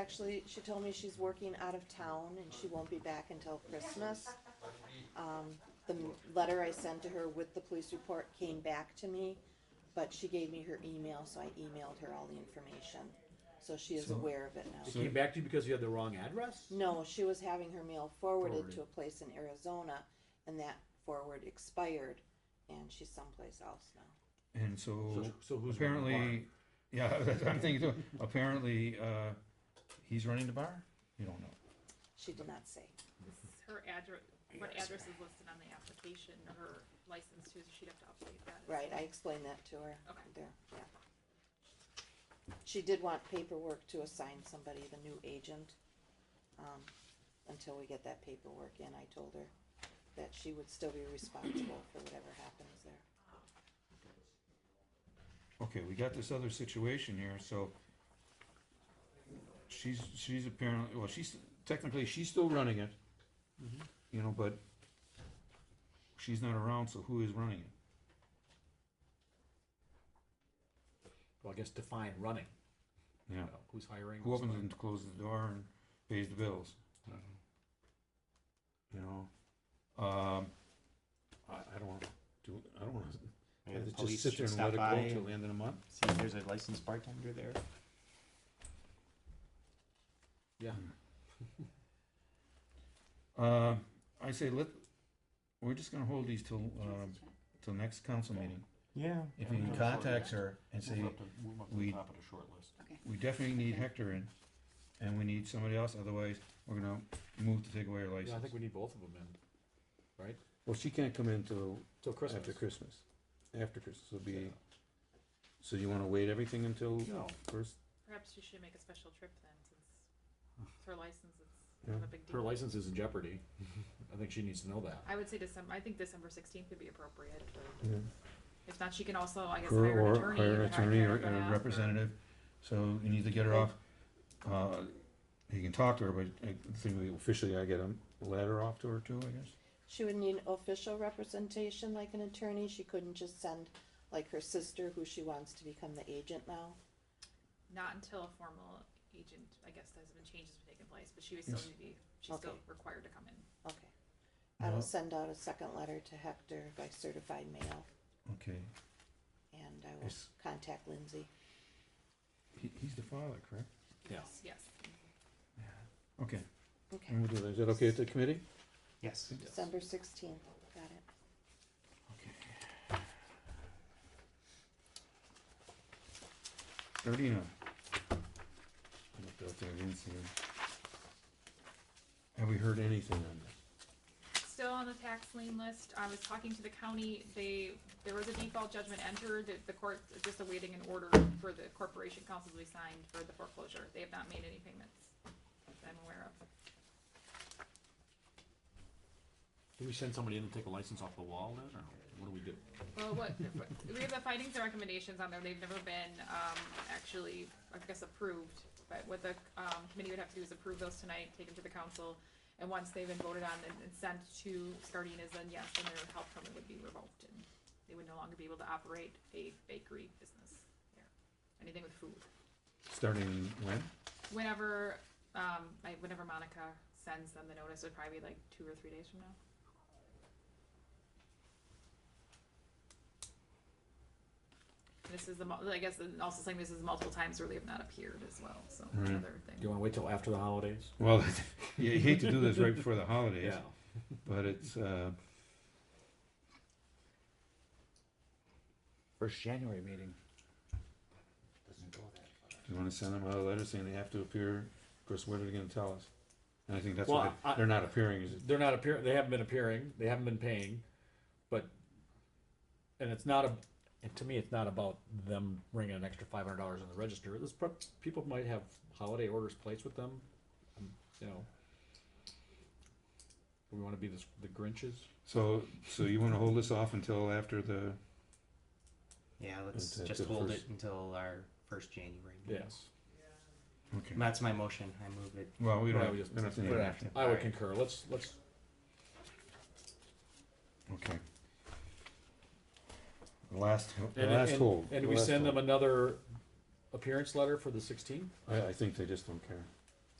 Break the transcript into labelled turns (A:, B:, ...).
A: actually, she told me she's working out of town and she won't be back until Christmas. Um, the m- letter I sent to her with the police report came back to me, but she gave me her email, so I emailed her all the information. So she is
B: So-
A: aware of it now.
B: so
C: It came back to you because you had the wrong address?
A: No, she was having her mail forwarded to
C: Forwarded.
A: a place in Arizona, and that forward expired, and she's someplace else now.
B: And so,
C: So- so who's running the
B: apparently, yeah, that's what I'm thinking too. Apparently, uh, he's running the bar? You don't know.
A: She did not say.
D: This is her address, what address is listed on the application, her license too, so she'd have to update that. as
A: Right,
D: well.
A: I explained that to her
D: Okay.
A: there, yeah. She did want paperwork to assign somebody, the new agent. Um, until we get that paperwork in, I told her that she would still be responsible for whatever happens there.
B: Okay, we got this other situation here, so she's, she's apparently, well, she's, technically, she's still running it. You know, but she's not around, so who is running it?
C: Well, I guess define running.
B: Yeah.
C: You know, who's hiring?
B: Who
C: who's
B: opens
C: not.
B: and closes the door and pays the bills? You know, Uh-huh. um, I, I don't wanna do, I don't wanna,
E: Maybe the
B: just
E: police
B: sit there
E: should
B: and let it
E: stop
B: go
E: by.
B: till the end of the month?
E: See if there's a licensed bartender there.
C: Yeah.
B: Uh, I say let, we're just gonna hold these till, um, till next council meeting.
E: Yeah.
B: If you can contact her and say,
F: Move up to
B: we-
F: the top of the short list.
B: we definitely need Hector in, and we need somebody else, otherwise, we're gonna move to take away her
C: Yeah, I think
B: license.
C: we need both of them in, right?
B: Well, she can't come in till
C: Till Christmas.
B: after Christmas. After Christmas will be, so you wanna wait everything until
C: No.
B: first?
D: Perhaps she should make a special trip then, since it's her license, it's
B: Yeah.
D: not a big deal.
C: Her license is in jeopardy. I think she needs to know that.
D: I would say December, I think December sixteenth would be appropriate. for-
B: Yeah.
D: If not, she can also, I guess,
B: Her
D: hire an
B: or
D: attorney.
B: hire an
D: if I
B: attorney
D: can,
B: or
D: and uh, ask
B: a
D: her.
B: representative, so you need to get her off. Uh, You can talk to her, but I think we officially gotta get a letter off to her too, I guess.
A: She would need official representation, like an attorney, she couldn't just send, like her sister, who she wants to become the agent now.
D: Not until a formal agent, I guess, has been changes have taken place, but she would still
B: Yes.
D: need to be, she's still
A: Okay.
D: required to come in.
A: Okay. I will
B: Yeah.
A: send out a second letter to Hector by certified mail,
B: Okay,
A: and I will
B: Yes.
A: contact Lindsay.
B: he, he's the father, correct?
C: Yeah.
D: Yes, Yes.
B: Okay,
A: Okay,
B: and we'll do that, is that okay at the committee?
E: Yes.
A: December sixteenth, got it.
B: Thirty-nine. I looked out there, I didn't see him. Have we heard anything on this?
D: Still on the tax lien list. I was talking to the county. They, there was a default judgment entered. The- The court is just awaiting an order for the corporation council to be signed for the foreclosure. They have not made any payments that I'm aware of.
C: Do we send somebody in to take a license off the wall then, or what do we do?
D: Well, what, we have the findings and recommendations on there, they've never been, um, actually, I guess, approved. But what the, um, committee would have to do is approve those tonight, take them to the council, and once they've been voted on and and sent to Scardinas, then yes, then their health permit would be revoked, and they would no longer be able to operate a bakery business there, anything with food.
B: Starting when?
D: Whenever, um, like, whenever Monica sends them the notice, it would probably be like two or three days from now. This is the, mul- I guess, and also saying this is multiple times where they have not appeared as well, so
B: Right.
D: another
C: Do you
D: thing.
C: wanna wait till after the holidays?
B: Well, you hate to do this right before the holidays,
C: Yeah.
B: but it's, uh,
E: First January meeting.
F: Doesn't go that far.
B: you wanna send them out a letter saying they have to appear, of course, what are they gonna tell us? And I think that's why
C: Well, I-
B: they're not appearing, is it?
C: They're not appearing, they haven't been appearing, they haven't been paying, but, and it's not a, and to me, it's not about them bringing an extra five hundred dollars in the register. This, pro- people might have holiday orders placed with them, um, you know. We wanna be the, the Grinches?
B: So, so you wanna hold this off until after the,
E: Yeah, let's
B: Until
E: just
B: the
E: hold
B: first-
E: it until our first January meeting.
C: Yes.
B: okay,
E: That's my motion. I move it.
B: well, we don't,
C: Yeah, we
B: we
C: just
B: don't have to
C: put
B: name
C: it
B: it.
C: out. I would concur, let's, let's,
B: Okay. The Last, the
C: and,
B: last
C: and-
B: hold.
C: and
B: the
C: we
B: last
C: send them
B: hold.
C: another appearance letter for the sixteenth?
B: I, I think they just don't care.